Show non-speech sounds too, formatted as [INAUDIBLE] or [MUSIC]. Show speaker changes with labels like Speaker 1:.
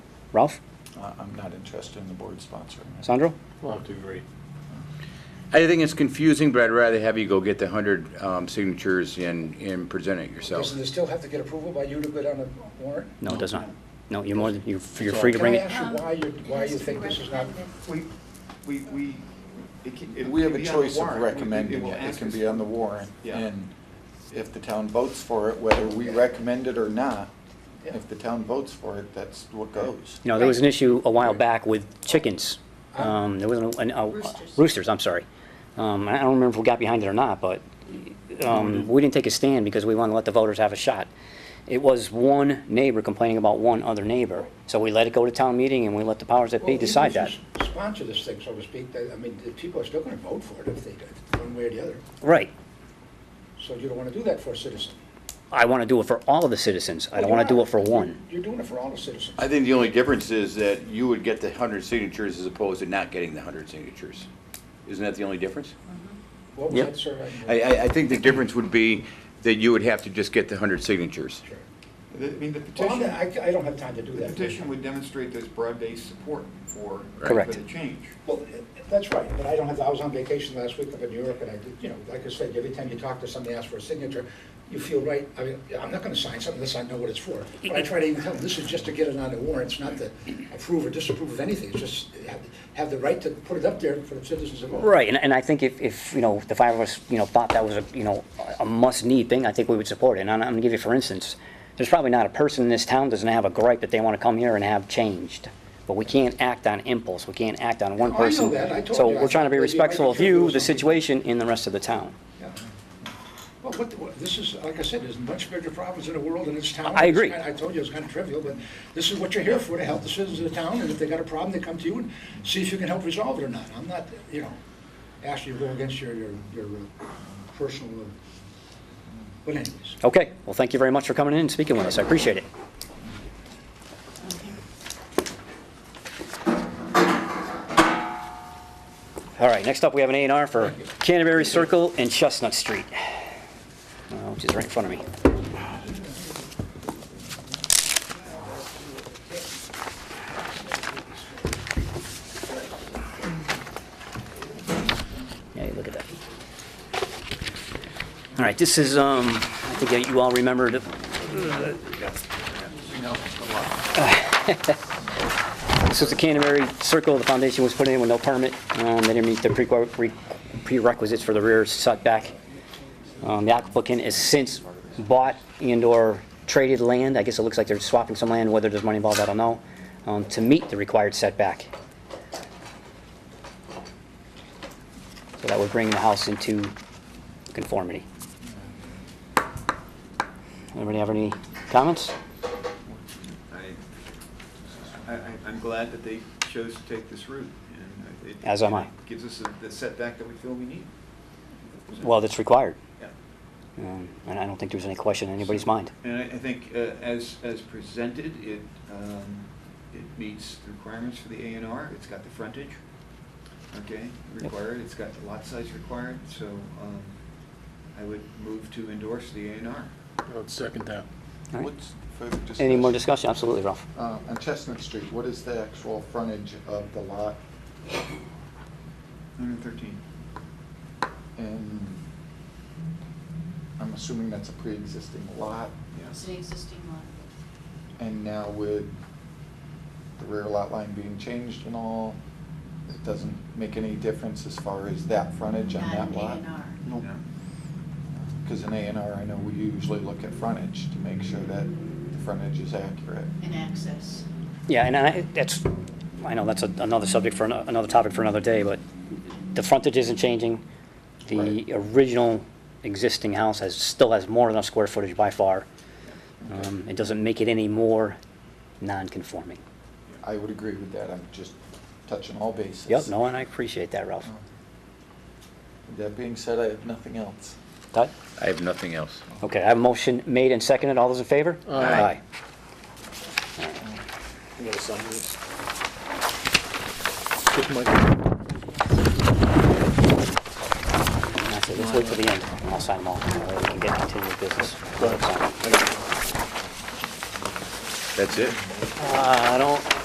Speaker 1: Ralph?
Speaker 2: I- I'm not interested in the board sponsoring it.
Speaker 1: Sandro?
Speaker 3: We'll have to agree.
Speaker 4: I think it's confusing, but I'd rather have you go get the 100 um, signatures and, and present it yourself.
Speaker 5: Doesn't it still have to get approval by you to go down the warrant?
Speaker 1: No, it does not. No, you're more than, you're you're free to bring
Speaker 5: Can
Speaker 1: it.
Speaker 5: I
Speaker 6: Um,
Speaker 5: ask you why you, why you think this is not,
Speaker 7: We, we, we, it can, it
Speaker 2: We have
Speaker 7: can
Speaker 2: a
Speaker 7: be on the
Speaker 2: choice of
Speaker 7: warrant. We- we-
Speaker 2: recommending
Speaker 7: will
Speaker 2: it. It
Speaker 7: ask
Speaker 2: can
Speaker 7: us-
Speaker 2: be on the warrant.
Speaker 7: Yeah.
Speaker 2: And if the town votes for it, whether we recommend it or not,
Speaker 5: Yeah.
Speaker 2: if the town votes for it, that's what goes.
Speaker 1: You know, there was an issue a while back with chickens. Um, there was an, an, uh,
Speaker 6: Roosters.
Speaker 1: roosters, I'm sorry. Um, I don't remember if we got behind it or not, but,
Speaker 5: Mm-hmm.
Speaker 1: um, we didn't take a stand because we wanted to let the voters have a shot. It was one neighbor complaining about one other neighbor. So we let it go to town meeting and we let the powers that
Speaker 5: Well,
Speaker 1: be
Speaker 5: even
Speaker 1: decide
Speaker 5: if you
Speaker 1: that.
Speaker 5: s- Sponsor this thing, so to speak, that- I mean, the people are still gonna vote for it if they, did, one way or the other.
Speaker 1: Right.
Speaker 5: So you don't wanna do that for a citizen.
Speaker 1: I want to do it for all of the citizens. I don't
Speaker 5: Well,
Speaker 1: want to do
Speaker 5: you're
Speaker 1: it for
Speaker 5: not.
Speaker 1: one.
Speaker 5: You're doing it for all the citizens.
Speaker 4: I think the only difference is that you would get the 100 signatures as opposed to not getting the 100 signatures. Isn't that the only difference?
Speaker 5: What was
Speaker 1: Yep.
Speaker 5: that survey?
Speaker 4: I, I, I think the difference would be that you would have to just get the 100 signatures.
Speaker 5: Sure.
Speaker 7: I mean, the
Speaker 5: Well, I'm
Speaker 7: petition,
Speaker 5: not- I, I don't have time to do
Speaker 7: the
Speaker 5: that.
Speaker 7: petition would demonstrate there's broad-based support for, for
Speaker 1: Correct.
Speaker 7: the change.
Speaker 5: Well, that's right, but I don't have, I was on vacation last week up in New York, and I did, you know, like I said, every time you talk to somebody, ask for a signature, you feel right, I mean, I'm not gonna sign something unless I know what it's for. But I try to even tell them, this is just to get it on the warrant, it's not to approve or disapprove of anything, it's just have, have the right to put it up there for the citizens to vote.
Speaker 1: Right, and, and I think if, if, you know, the five of us, you know, thought that was a, you know, a must-need thing, I think we would support it. And I'm, I'm gonna give you, for instance, there's probably not a person in this town doesn't have a gripe that they wanna come here and have changed. But we can't act on impulse, we can't act on one
Speaker 5: Oh, I know
Speaker 1: person.
Speaker 5: that. I told
Speaker 1: So
Speaker 5: you.
Speaker 1: we're trying to be
Speaker 5: I thought you might
Speaker 1: respectful of
Speaker 5: be sure there
Speaker 1: you,
Speaker 5: was
Speaker 1: the
Speaker 5: something.
Speaker 1: situation, and the rest of the town.
Speaker 5: Yeah. Well, what, what, this is, like I said, there's much bigger problems in the world in this town.
Speaker 1: I agree.
Speaker 5: It's kinda- I told you, it's kind of trivial, but this is what you're here for, to help the citizens of the town, and if they got a problem, they come to you and see if you can help resolve it or not. I'm not, you know, asking you to go against your, your, your uh, personal, uh, but anyways.
Speaker 1: Okay, well, thank you very much for coming in and speaking with us, I appreciate it. All right, next up, we have an A and R for Canterbury Circle and Chestnut Street, uh, which is right in front of me. Yeah, you look at that. All right, this is, um, I think you all remember the [LAUGHS] This is the Canterbury Circle, the foundation was put in with no permit. Um, They didn't meet the prerequ- re- prerequisites for the rear setback. Um, The applicant has since bought and/or traded land, I guess it looks like they're swapping some land, whether there's money involved, I don't know, um, to meet the required setback. So that would bring the house into conformity. Anybody have any comments?
Speaker 7: I, I, I- I'm glad that they chose to take this route, and it.
Speaker 1: As am I.
Speaker 7: Gives us the setback that we feel we need.
Speaker 1: Well, that's required,
Speaker 7: Yeah.
Speaker 1: Um, and I don't think there's any question in anybody's mind.
Speaker 7: And I, I think, uh, as, as presented, it, um, it meets the requirements for the A and R, it's got the frontage, okay, required, it's got the lot size required, so, um, I would move to endorse the A and R.
Speaker 3: I would second that.
Speaker 1: All right.
Speaker 2: What's further
Speaker 1: Any more discussion?
Speaker 2: discussion?
Speaker 1: Absolutely, Ralph.
Speaker 2: Uh, On Chestnut Street, what is the actual frontage of the lot?
Speaker 7: Hundred thirteen.
Speaker 2: And I'm assuming that's a pre-existing lot,
Speaker 6: It's an existing one.
Speaker 2: and now with the rear lot line being changed and all, it doesn't make any difference as far as that frontage on
Speaker 6: Not
Speaker 2: that
Speaker 6: an
Speaker 2: lot?
Speaker 6: A&R.
Speaker 2: Nope. Because in A and R, I know we usually look at frontage to make sure that the frontage is accurate.
Speaker 6: an access.
Speaker 1: Yeah, and I, that's, I know that's a- another subject for, ano- another topic for another day, but the frontage isn't changing. The
Speaker 2: Right.
Speaker 1: original existing house has, still has more than enough square footage by far. Um, It doesn't make it any more non-conforming.
Speaker 2: I would agree with that, I'm just touching all bases.
Speaker 1: Yep, no, and I appreciate that, Ralph.
Speaker 2: That being said, I have nothing else.
Speaker 1: Todd?
Speaker 4: I have nothing else.
Speaker 1: Okay, I have a motion made and seconded. All those in favor?
Speaker 3: Aye. You gotta sign this. Give Mike-
Speaker 1: And that's it. Let's wait till the end. and I'll sign them all. and then We can get continued business.
Speaker 3: Go ahead.
Speaker 4: That's it?
Speaker 1: Uh, I don't